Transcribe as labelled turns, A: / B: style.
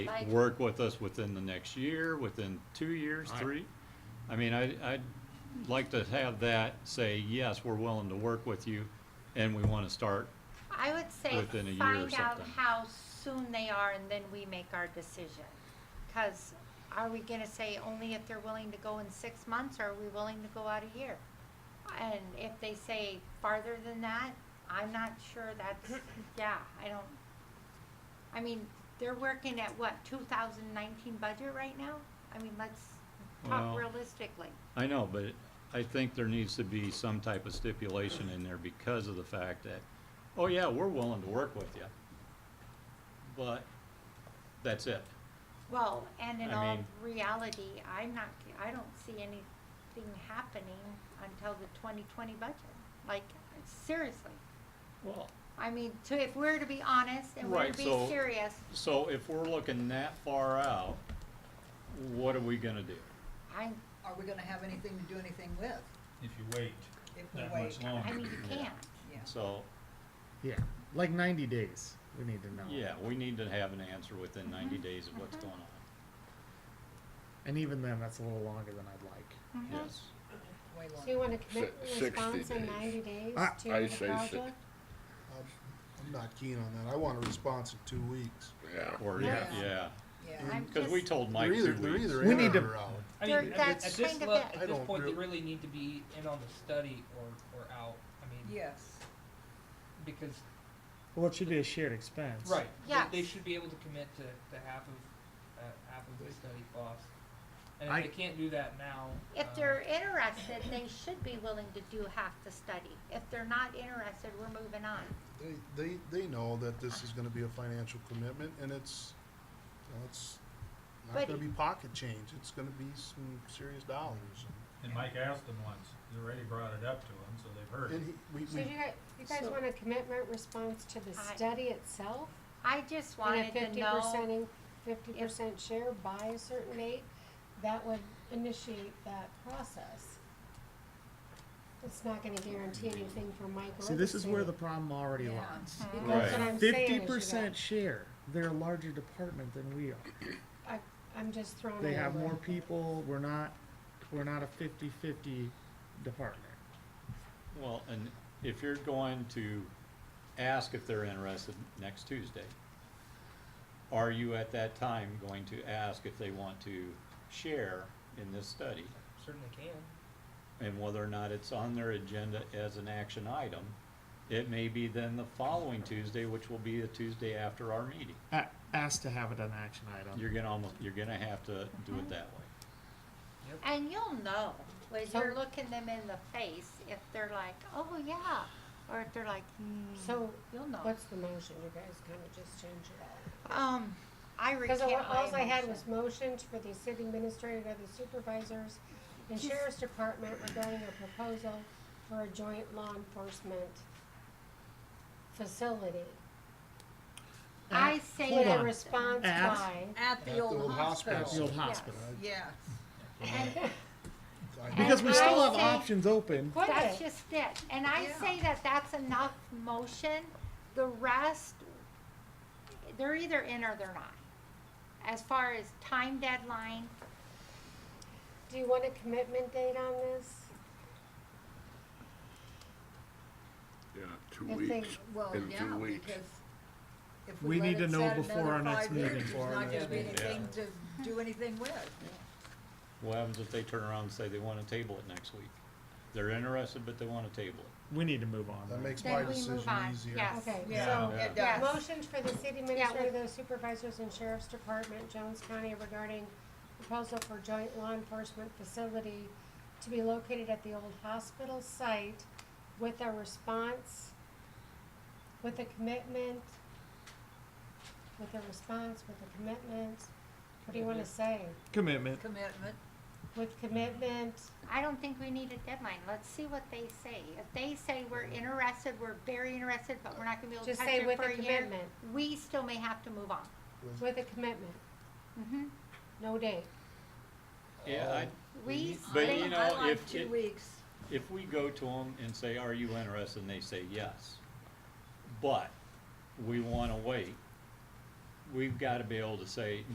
A: Like-
B: work with us within the next year, within two years,
C: All right.
B: three. I mean, I, I'd like to have that say, yes, we're willing to work with you and we want to start.
A: I would say
B: within a year or
A: find out
B: something.
A: how soon they are and then we make our decision. Cause are we gonna say only if they're willing to go in six months or are we willing to go out a year? And if they say farther than that, I'm not sure that's, yeah, I don't, I mean, they're working at what, two thousand nineteen budget right now? I mean, let's
B: Well-
A: talk realistically.
B: I know, but I think there needs to be some type of stipulation in there because of the fact that, oh yeah, we're willing to work with you. But that's it.
A: Well, and in
B: I
A: all
B: mean-
A: reality, I'm not, I don't see anything happening until the twenty twenty budget. Like, seriously,
B: Well,
A: I mean, to, if we're to be honest and we're
B: Right,
A: to
B: so-
A: be serious,
B: so if we're looking that far out, what are we gonna do?
A: I,
D: are we gonna have anything to do anything with
E: if you wait
D: if we
E: that
D: wait?
E: much longer.
A: I mean, you can't.
D: Yeah.
B: So,
F: Yeah, like 90 days. We need to know.
B: yeah, we need to have an answer within ninety days of what's
A: Mhm.
B: going on.
F: And even then, that's a little longer than I'd like.
E: Mm-hmm.
A: Mhm.
B: Yes.
D: Way
G: So you
D: longer.
G: want a commitment
H: Si- 60
G: response in
H: days.
G: ninety days
F: I-
G: to
H: I say
G: the
H: si-
G: project?
I: I'm- I'm not keen on that. I want a response in two weeks.
H: Yeah.
B: Or,
A: Yeah.
B: yeah,
D: Yeah,
A: I'm
B: because we
A: just-
B: told Mike
I: They're either,
B: two
I: they're
B: weeks.
I: either
F: We
I: in
F: need to-
I: or out.
E: I
A: There-
E: mean, at
A: that's
E: thi- at
A: kind
E: this
A: of
E: le-
A: it.
I: I
E: at this
I: don't
E: point, they
I: real-
E: really need to be in on the study or, or out, I mean,
D: yes.
E: because,
F: Well, it should be a shared expense.
E: right,
A: Yes.
E: they, they should be able to commit to, to half of, uh, half of the study cost. And
F: I-
E: if they can't do that now,
A: If
E: um,
A: they're interested, they should be willing to do half the study. If they're not interested, we're moving on.
I: They, they, they know that this is gonna be a financial commitment and it's, you know, it's
A: But-
I: not gonna be pocket change. It's gonna be some serious dollars.
C: And Mike asked them once, they already brought it up to him, so they've heard
I: And
C: it.
I: he, we,
G: So
I: we,
G: you guys, you guys
A: So-
G: want a commitment response to the
A: I-
G: study itself?
A: I just
G: And a
A: wanted to
G: fifty
A: know,
G: percent, fifty percent share by a certain date? That would initiate that process. It's not gonna guarantee anything for Mike or
F: See,
G: the
F: this is where the
G: city.
F: problem already
D: Yeah.
F: lies.
G: Because
B: Right.
G: what I'm saying is you
F: Fifty percent
G: got-
F: share. They're a larger department than we are.
G: I, I'm just throwing.
F: They
G: it
F: have
G: out
F: more
G: there.
F: people. We're not. We're not a 50-50 department.
B: Well, and if you're going to ask if they're interested next Tuesday, are you at that time going to ask if they want to share in this study?
E: certainly can,
B: And whether or not it's on their agenda as an action item, it may be then the following Tuesday, which will be the Tuesday after our meeting.
F: A- asked to have it an action item.
B: You're gonna almost, you're gonna have to do it that way.
A: and you'll know, when you're
G: So-
A: looking them in the face, if they're like, oh, yeah, or if they're like, hmm,
G: So
A: you'll know.
G: what's the motion? You guys kinda just change it all.
A: Um, I recant
G: Because all alls
A: my
G: I had
A: motion.
G: was motions for the city administrator, the supervisors, and
A: Just-
G: sheriff's department regarding a proposal for a joint law enforcement facility.
A: I
F: At-
A: say
F: Hold
G: With a
F: on.
G: response
F: At-
G: by,
D: At the old
F: At the
D: hospital.
F: old hospital.
D: Yes.
I: I-
F: Because we
A: And
F: still
A: I
F: have
A: say-
F: options open.
G: Quit
A: That's
G: it.
A: just it, and I
D: Yeah.
A: say that that's enough motion, the rest, they're either in or they're not. As far as time deadline,
G: do you want a commitment date on this?
H: Yeah, two
G: If they-
H: weeks.
D: Well,
H: In
D: yeah,
H: two weeks.
D: because if
F: We
D: we let
F: need to
D: it
F: know
D: set
F: before
D: another
F: our next
D: five years,
F: meeting,
D: there's
F: before our
D: not gonna
E: next
D: be
E: meeting.
D: anything to do anything with.
B: What happens if they turn around and say they wanna table it next week? They're interested, but they wanna table it.
F: We need to move on.
I: that
F: though.
I: makes
A: Then
I: my
A: we move
I: decision
A: on,
I: easier.
A: yeah.
G: Okay,
D: Yeah,
G: so,
D: it
A: Yeah.
D: does.
G: motions for the city administrator, the supervisors, and sheriff's department, Jones County regarding proposal for joint law enforcement facility to be located at the old hospital site with a response, with a commitment, with a response, with a commitment, what do you wanna say?
F: commitment.
D: Commitment.
G: With commitment,
A: I don't think we need a deadline, let's see what they say. If they say we're interested, we're very interested, but we're not gonna be able to
G: Just
A: touch
G: say
A: it
G: with
A: for
G: a
A: a year,
G: commitment.
A: we still may have to move on.
G: with a commitment,
A: Mm-hmm,
G: no date.
B: Yeah, I,
A: we,
B: But
A: they-
B: you know,
D: I like
B: if
D: Two
B: it-
D: weeks.
B: if we go to them and say, are you interested, and they say yes, but we wanna wait, we've gotta be able to say,